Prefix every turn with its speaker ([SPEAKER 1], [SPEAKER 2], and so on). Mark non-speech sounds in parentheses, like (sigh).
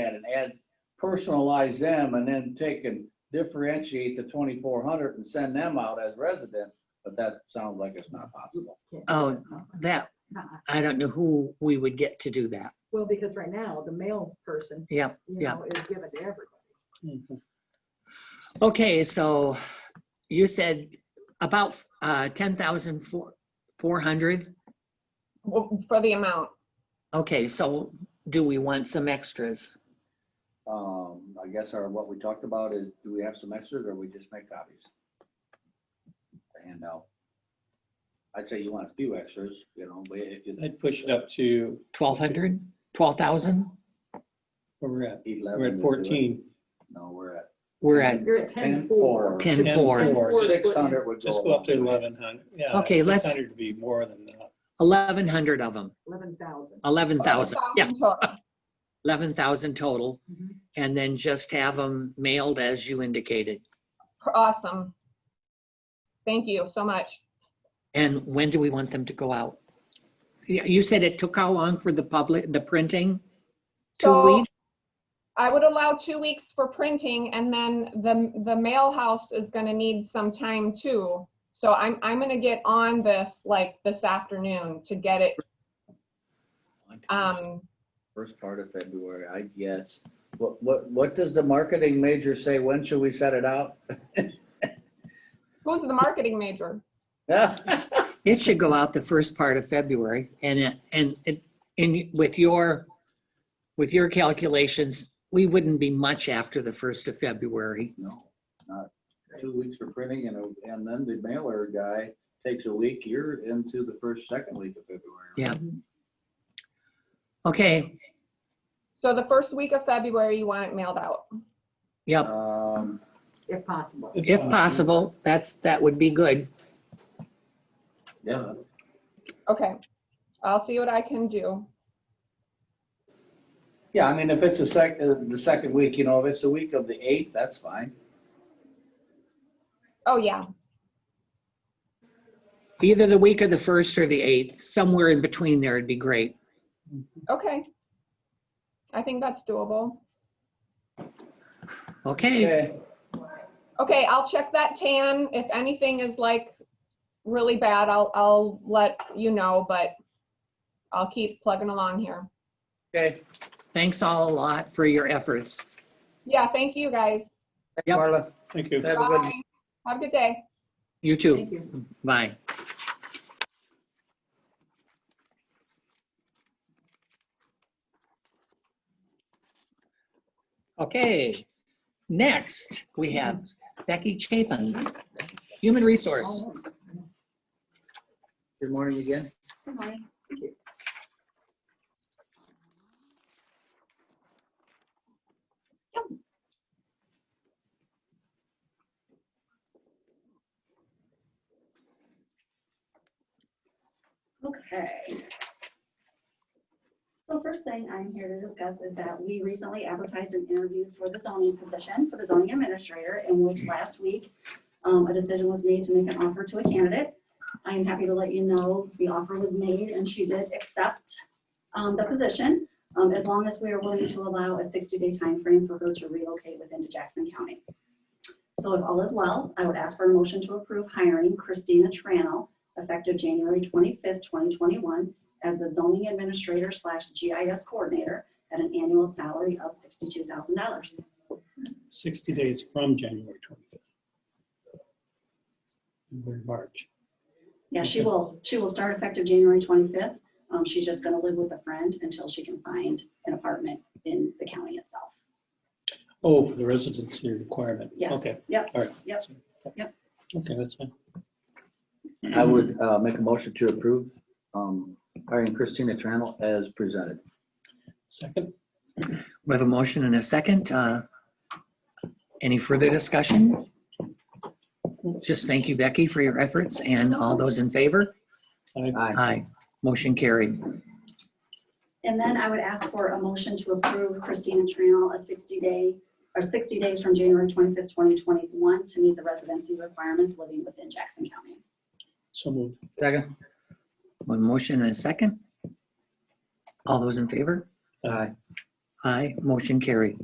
[SPEAKER 1] that and add, personalize them and then take and differentiate the twenty-four hundred and send them out as residents, but that sounds like it's not possible.
[SPEAKER 2] Oh, that, I don't know who we would get to do that.
[SPEAKER 3] Uh-uh. Well, because right now, the mail person,
[SPEAKER 2] Yeah.
[SPEAKER 3] you
[SPEAKER 2] Yeah.
[SPEAKER 3] know, is given to everybody.
[SPEAKER 2] Okay, so you said about uh, 10,400.
[SPEAKER 4] Well, For the amount,
[SPEAKER 2] Okay, so do we want some extras?
[SPEAKER 1] Um, I guess our, what we talked about is, do we have some extras or we just make copies? To hand out. I'd say you want a few extras, you know, but if you,
[SPEAKER 5] I'd push it up to,
[SPEAKER 2] 1,200, 12,000?
[SPEAKER 5] where we're at,
[SPEAKER 1] eleven.
[SPEAKER 5] we're
[SPEAKER 1] would do
[SPEAKER 5] at
[SPEAKER 1] it.
[SPEAKER 5] 14.
[SPEAKER 1] No, we're at
[SPEAKER 2] We're at
[SPEAKER 3] You're at ten four.
[SPEAKER 2] 10, 4.
[SPEAKER 5] 10,400.
[SPEAKER 1] Six hundred would go.
[SPEAKER 5] Just go up to
[SPEAKER 1] a long way.
[SPEAKER 5] 1,100. Yeah,
[SPEAKER 2] Okay, let's-
[SPEAKER 5] 600 would be more than that.
[SPEAKER 2] 1,100 of them,
[SPEAKER 3] Eleven thousand.
[SPEAKER 2] 11,000. Yeah,
[SPEAKER 4] 12,000 total.
[SPEAKER 2] 11,000 total.
[SPEAKER 3] Mhm.
[SPEAKER 2] And then just have them mailed as you indicated.
[SPEAKER 4] awesome. Thank you so much.
[SPEAKER 2] And when do we want them to go out? You you said it took how long for the public, the printing? Two
[SPEAKER 4] So
[SPEAKER 2] weeks?
[SPEAKER 4] I would allow two weeks for printing and then the, the mail house is gonna need some time too. So I'm, I'm gonna get on this like this afternoon to get it, um,
[SPEAKER 1] First part of February, I guess. What, what, what does the marketing major say? When should we set it out?
[SPEAKER 4] who's the marketing major?
[SPEAKER 1] (laughs) Yeah.
[SPEAKER 2] It should go out the first part of February and, it- and, it- and with your, with your calculations, we wouldn't be much after the first of February.
[SPEAKER 1] No, not two weeks for printing and, a- and then the mailer guy takes a week. You're into the first, second week of February.
[SPEAKER 2] Yeah. Okay,
[SPEAKER 4] So the first week of February, you want it mailed out.
[SPEAKER 2] yep,
[SPEAKER 1] Um,
[SPEAKER 3] If possible.
[SPEAKER 2] if possible, that's, that would be good.
[SPEAKER 1] yeah,
[SPEAKER 4] Okay. I'll see what I can do.
[SPEAKER 1] yeah, I mean, if it's the sec, uh, the second week, you know, if it's the week of the eighth, that's fine.
[SPEAKER 4] Oh, yeah.
[SPEAKER 2] Either the week of the first or the eighth, somewhere in between there would be great.
[SPEAKER 4] Okay. I think that's doable.
[SPEAKER 2] Okay,
[SPEAKER 1] Okay,
[SPEAKER 4] Okay, I'll check that tan. If anything is like really bad, I'll, I'll let you know, but I'll keep plugging along here.
[SPEAKER 1] okay.
[SPEAKER 2] thanks all a lot for your efforts.
[SPEAKER 4] Yeah, thank you guys.
[SPEAKER 2] Yep.
[SPEAKER 1] Marla,
[SPEAKER 5] Thank you.
[SPEAKER 1] have a good,
[SPEAKER 4] Bye. Have a good day.
[SPEAKER 2] You too,
[SPEAKER 3] Thank you.
[SPEAKER 2] bye. Okay, next, we have Becky Chapin, Human Resource.
[SPEAKER 1] good morning again.
[SPEAKER 6] Okay. So first thing I'm here to discuss is that we recently advertised an interview for the zoning position for the zoning administrator, in which last week um, a decision was made to make an offer to a candidate. I am happy to let you know the offer was made and she did accept um, the position, um, as long as we are willing to allow a 60-day time frame for her to relocate within to Jackson County. So if all is well, I would ask for a motion to approve hiring Christina Tranel effective January 25th, 2021, as the zoning administrator slash GIS coordinator at an annual salary of $62,000.
[SPEAKER 5] 60 days from January 25th. We're in March.
[SPEAKER 6] Yeah, she
[SPEAKER 5] Okay.
[SPEAKER 6] will, she will start effective January 25th. Um, She's just going to live with a friend until she can find an apartment in the county itself.
[SPEAKER 5] Oh, for the residency requirement.
[SPEAKER 6] Yes.
[SPEAKER 5] Okay,
[SPEAKER 6] Yep,
[SPEAKER 5] all right.
[SPEAKER 6] Yep. Yep.
[SPEAKER 5] Okay, that's fine.
[SPEAKER 1] I would uh, make a motion to approve um, hiring Christina Tranel as presented.
[SPEAKER 5] Second,
[SPEAKER 2] We have a motion and a second. Uh, Any further discussion? Just thank you, Becky, for your efforts, and all those in favor?
[SPEAKER 5] I
[SPEAKER 1] Aye.
[SPEAKER 2] Aye. Motion carried.
[SPEAKER 6] And then I would ask for a motion to approve Christina Tranel a 60-day, or 60 days from January 25th, 2021, to meet the residency requirements living within Jackson County.
[SPEAKER 5] so moved.
[SPEAKER 1] Second?
[SPEAKER 2] One motion and a second. All those in favor?
[SPEAKER 1] Aye.
[SPEAKER 2] Aye, motion carried.